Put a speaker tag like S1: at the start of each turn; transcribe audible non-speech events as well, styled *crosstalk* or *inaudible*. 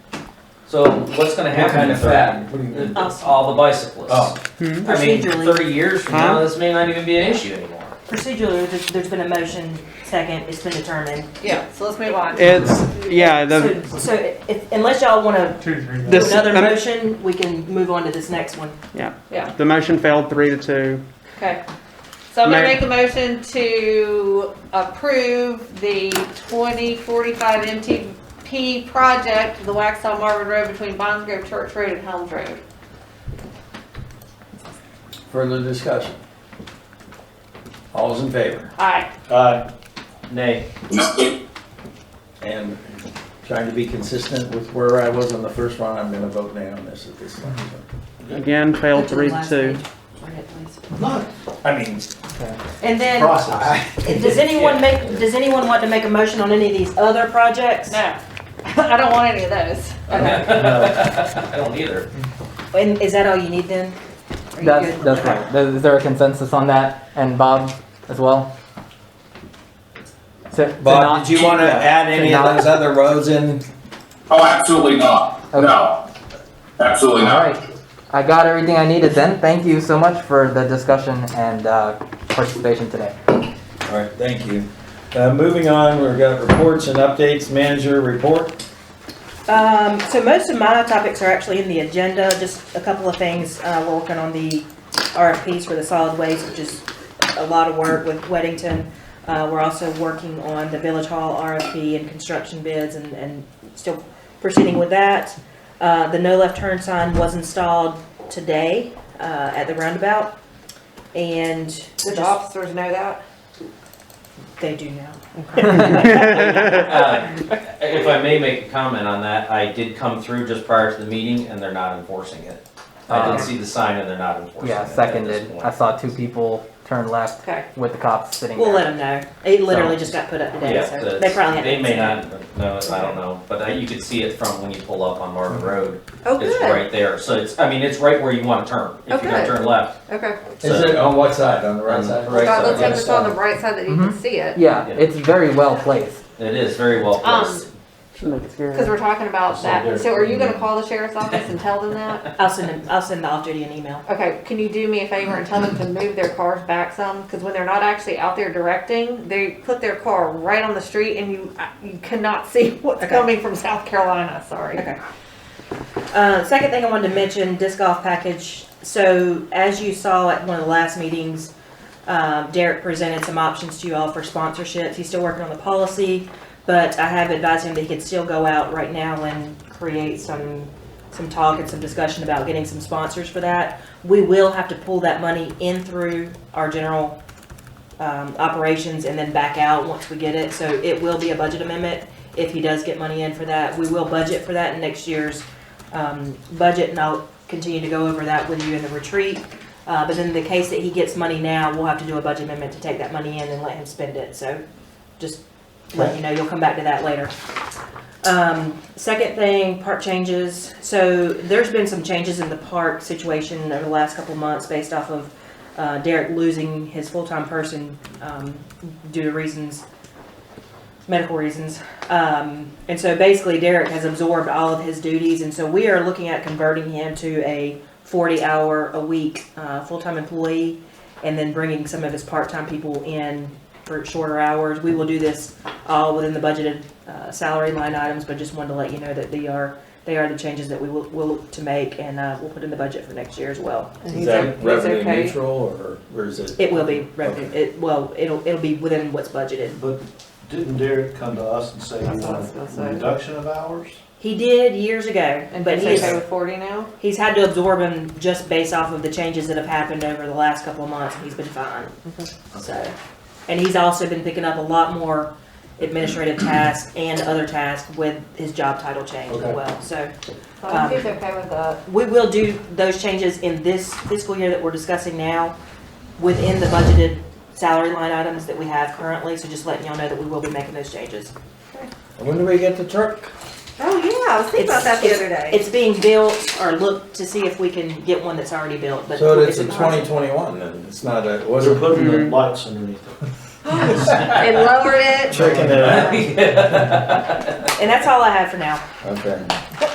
S1: So what's gonna happen if that,
S2: What do you mean?
S3: Us.
S1: all the bicyclists?
S2: Oh.
S4: Hmm?
S1: I mean,
S3: Procedurally.
S1: thirty years from now, this may not even be an issue anymore.
S3: Procedurally, there's, there's been a motion, second, it's been determined.
S5: Yeah, so let's move on.
S4: It's, yeah, the,
S3: So, so if, unless y'all wanna
S2: Two, three.
S3: do
S4: This-
S3: another
S4: um,
S3: motion, we can move on to this next one.
S5: Yeah,
S4: the motion failed three to two.
S5: okay. So I'm gonna
S4: Ma-
S5: make a motion to approve the twenty forty-five MTP project, the Waxaw Marvin Road between Bonds Grove Church Road and Helms Road.
S6: Further discussion? All's in favor?
S5: Aye.
S6: Aye. Nay.
S7: Mistake.
S6: And trying to be consistent with where I was on the first one, I'm gonna vote nay on this at this time.
S4: Again, failed three to two.
S6: Not, I mean,
S3: And then,
S6: process.
S3: does anyone make, does anyone want to make a motion on any of these other projects?
S5: No, *laughs* I don't want any of those. Okay.
S1: *laughs* I don't either.
S3: And is that all you need then? Are you
S8: That's,
S3: good?
S8: that's right. Th- Is there a consensus on that? And Bob as well? So- so
S6: Bob,
S8: not-
S6: did you wanna add any of
S8: not-
S6: those other roads in?
S7: Oh, absolutely not. No. Absolutely
S8: All
S7: not.
S8: right. I got everything I needed then. Thank you so much for the discussion and uh, participation today.
S6: All right, thank you. Uh, moving on, we've got reports and updates, manager report.
S3: Um, so most of my topics are actually in the agenda, just a couple of things, uh, we're working on the RFPs for the solid waste, which is a lot of work with Weddington. Uh, we're also working on the Village Hall RFP and construction bids and, and still proceeding with that. Uh, the no left turn sign was installed today, uh, at the roundabout, and
S5: Did the officers know that?
S3: they do now.
S1: Uh, If I may make a comment on that, I did come through just prior to the meeting and they're not enforcing it. I did see the sign and they're not enforcing it
S8: Yeah,
S1: at this
S8: seconded. I
S1: point.
S8: saw two people turn left
S5: Okay.
S8: with the cops sitting
S3: We'll
S8: there.
S3: let them know, it literally just got put up today,
S1: Yeah,
S3: so
S1: the-
S3: they probably haven't.
S1: They may not know, it, I don't know, but I- you could see it from when you pull up on Marvin Road.
S5: Oh,
S1: It's
S5: good.
S1: right there, so it's, I mean, it's right where you wanna turn, if you're gonna
S5: Okay.
S1: turn left.
S5: Okay.
S6: Is it on what side, on the right side?
S1: Right
S5: God,
S1: side, Mm-hmm.
S5: let's hope it's on the bright side that you can
S8: Mhm.
S5: see it.
S8: Yeah,
S1: Yeah.
S8: it's very well placed.
S1: It is very well
S5: Um,
S1: placed. *laughs*
S4: Shouldn't make it scary.
S5: Cause we're talking about
S6: So
S5: that.
S6: they're-
S5: So are you gonna call the sheriff's office and tell them that?
S3: I'll send them, I'll send the off-duty an email.
S5: Okay, can you do me a favor and tell them to move their cars back some? Because when they're not actually out there directing, they put their car right on the street and you, you cannot *laughs* see what's
S3: Okay.
S5: coming from South Carolina, sorry.
S3: Okay. Uh, second thing I wanted to mention, disc golf package. So as you saw at one of the last meetings, um, Derek presented some options to you all for sponsorships. He's still working on the policy, but I have advised him that he could still go out right now and create some, some talk and some discussion about getting some sponsors for that. We will have to pull that money in through our general, um, operations and then back out once we get it. So it will be a budget amendment if he does get money in for that. We will budget for that in next year's um, budget, and I'll continue to go over that with you in the retreat. Uh, But in the case that he gets money now, we'll have to do a budget amendment to take that money in and let him spend it, so just let you know, you'll come back to that later. Um, Second thing, park changes. So there's been some changes in the park situation over the last couple of months based off of uh, Derek losing his full-time person um, due to reasons, medical reasons. Um, and so basically Derek has absorbed all of his duties and so we are looking at converting him to a forty hour a week, uh, full-time employee and then bringing some of his part-time people in for shorter hours. We will do this all within the budgeted, uh, salary line items, but just wanted to let you know that they are, they are the changes that we will, will look to make and, uh, we'll put in the budget for next year as well.
S5: And
S6: Is
S5: he's o-
S6: that
S5: he's
S6: revenue
S5: okay.
S6: neutral or, or is it?
S3: It will be revenue, it, well, it'll, it'll be within what's budgeted.
S9: But didn't Derek come to us and say he
S5: That's what I was gonna
S9: wanted
S5: say.
S9: a reduction of hours?
S3: He did years ago,
S5: And
S3: but
S5: he's
S3: he is
S5: okay with forty now?
S3: He's had to absorb him just based off of the changes that have happened over the last couple of months, and he's been fine. So, and he's also been picking up a lot more administrative tasks and other tasks with his job title change as
S9: Okay.
S3: well. So
S5: So I
S3: Um,
S5: think he's okay with that.
S3: we will do those changes in this fiscal year that we're discussing now within the budgeted salary line items that we have currently, so just letting y'all know that we will be making those changes.
S6: When do we get the truck?
S5: Oh, yeah, I was thinking about that the
S3: It's-
S5: other day.
S3: It's being built, or look to see if we can get one that's already built, but.
S6: So it's a
S3: in the process.
S6: twenty twenty-one then, it's not a, it
S9: They're
S6: wasn't.
S9: putting the
S5: Mm-hmm.
S4: Mhm.
S9: lights underneath it.
S5: And lowered it.
S6: Checking it out,
S1: Yeah.
S3: And that's all I have for now.
S6: okay.